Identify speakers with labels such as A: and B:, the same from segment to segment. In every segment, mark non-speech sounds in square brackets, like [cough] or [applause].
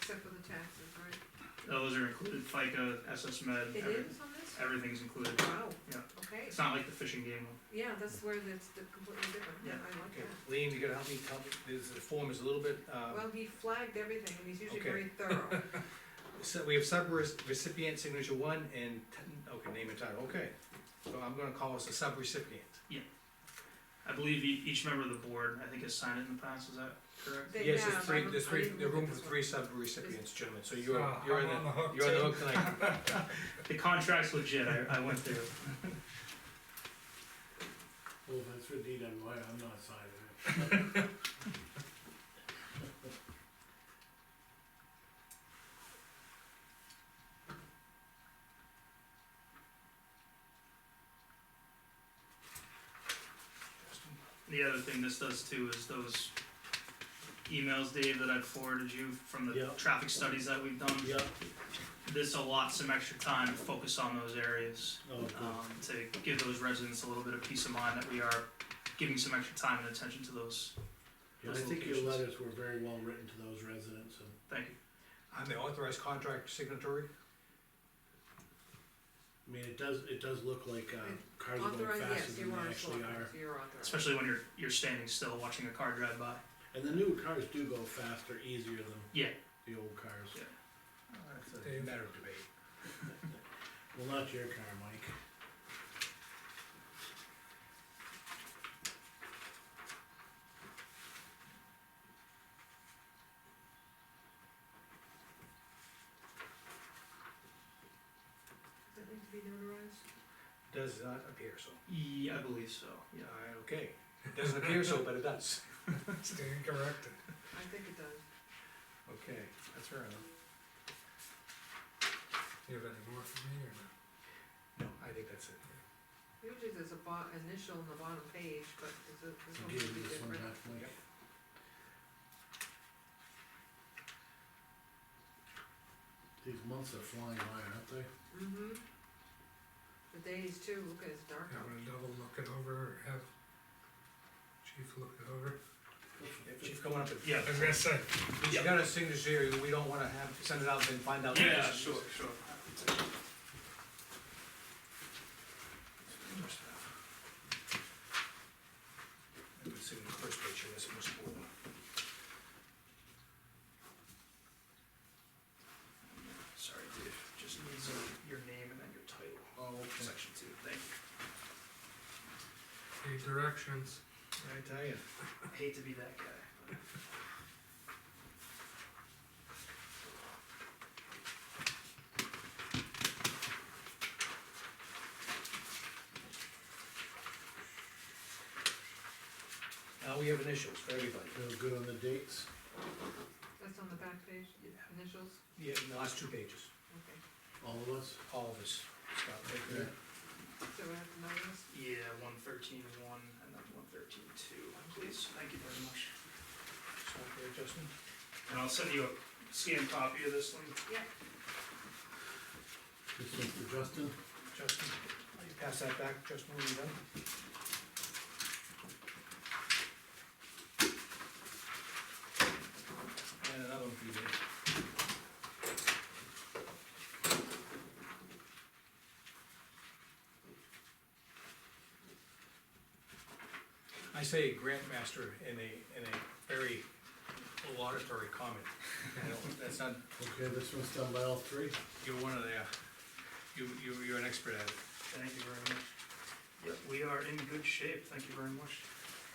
A: taxes, right?
B: Those are included, FICA, SS Med,
A: It
B: every-
A: is on this?
B: everything's included.
A: Wow.
B: Yeah.
A: Okay,
B: It's not like the fishing game one.
A: yeah, that's where that's the completely different, yeah, I like
C: Okay,
A: that.
C: Lean, you gotta help me, tell me, this, the form is a little bit, uh,
A: Well, he flagged everything, and he's usually
C: Okay.
A: very [laughs] thorough.
C: so we have sub-recipient signature one and, ten- okay, name and title, okay. So I'm gonna call us a sub-recipient.
B: I believe e- each member of the board, I think, has signed it in the past, is that correct?
A: They
C: Yes,
A: have,
C: there's three,
A: I
C: there's
A: don't- I
C: three,
A: didn't
C: the
A: look at
C: room
A: this
C: for
A: one.
C: three sub-recipients, gentlemen, so you're,
D: Ah,
C: you're in
D: I'm
C: the,
D: on the hook
C: you're on the
D: too.
C: hook tonight.
D: [laughs]
B: The contract's legit, I, I went through. it.
E: Well, if it's with DWI, I'm not signing it.
B: The other thing this does too is those emails, Dave, that I forwarded you from the
E: Yeah.
B: traffic studies that we've [laughs] done.
E: Yep.
B: This allots some extra time to focus on those areas,
E: Oh,
B: um, to give those residents a little bit of peace of mind that we are giving some extra time and attention to those.
E: I
B: those
E: think your
B: locations.
E: letters were very well written to those residents and
B: Thank you.
C: I'm the authorized contract signatory,
E: I mean, it does, it does look like, uh, cars are going
A: Authorized,
E: faster
A: yes,
E: than
A: you
E: they
A: are
E: actually are.
A: authorized, you're authorized.
B: Especially when you're, you're standing still watching a car drive by.
E: And the new cars do go faster, easier than
B: Yeah.
E: the old cars.
B: Yeah.
C: it's
D: Dave.
C: a matter of debate.
E: [laughs] Well, not your car, Mike.
A: Does that need to be notarized?
C: Does not appear so.
B: Yeah, I believe so, yeah.
C: Alright, okay, it doesn't appear so, but it does.
D: Stand corrected.
A: I think it does.
C: Okay, that's fair enough.
D: Do you have any more for me or not?
C: No, I think that's it.
A: Usually there's a bo- initial on the bottom page, but it's a, this
E: You
A: one
E: gave
A: should be
E: me this one
A: different.
E: back, Mike. These months are flying by, aren't they?
A: Mm-hmm. The days too, look, it's dark
D: You
A: out.
D: wanna double look it over or have chief look it over?
C: Yep, Chief, coming up with.
B: Yeah.
D: I was gonna say,
C: If you got a signature, we don't wanna have, send it out and find out.
B: sure.
C: I would say the first picture is most important.
B: Sorry, Dave, just needs uh, your name and then your title,
C: Oh, okay.
B: section two, thank you.
D: the directions,
C: I tell you.
B: I hate to be that guy. but-
C: Now we have initials for everybody.
E: They're good on the dates.
A: That's on the back page,
B: Yeah.
A: initials,
C: Yeah, in the last two pages,
A: okay.
E: All of us?
C: all of us. Scott, take that.
A: So I have to notarize?
B: Yeah, one thirteen one and then one thirteen two, please, thank you very much.
C: Stop there, Justin.
B: And I'll send you a scanned copy of this one.
E: This one's for Justin.
C: Justin, will you pass that back, Justin, when you're done? And another one for you, Dave. I say grant master in a, in a very laudatory [laughs] comment. I don't- That's not,
E: Okay, this one's done by all three.
C: you're one of the, uh, you, you- you're an expert at it.
B: Thank you very much. Yep, we are in good shape, thank you very much.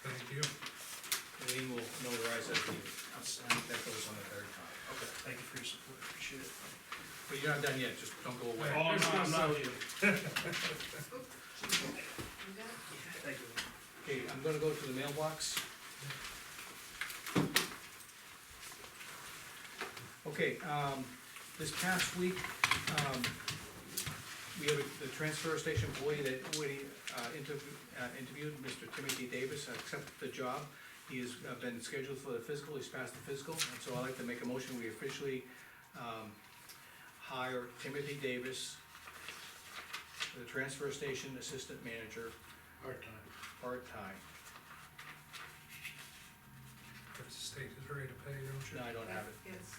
D: thank you.
C: Lean will notarize that, deed.
B: Outstanding.
C: that goes on the very top.
B: Okay, thank you for your support, appreciate it.
C: But you're not done yet, just don't go away.
B: Oh, no, I'm not you.
A: You got it?
B: Thank you.
C: Okay, I'm gonna go to the mailbox. Okay, um, this past week, um, we have a- the transfer station employee that we, uh, interview- uh, interviewed, Mr. Timothy Davis, accepted the job. He has uh, been scheduled for the physical, he's passed the physical, and so I'd like to make a motion, we officially, um, hire Timothy Davis, the transfer station assistant manager,
E: Hard time.
C: part-time.
D: If the state is ready to pay, don't you?
C: No, I don't have it.
A: Yes,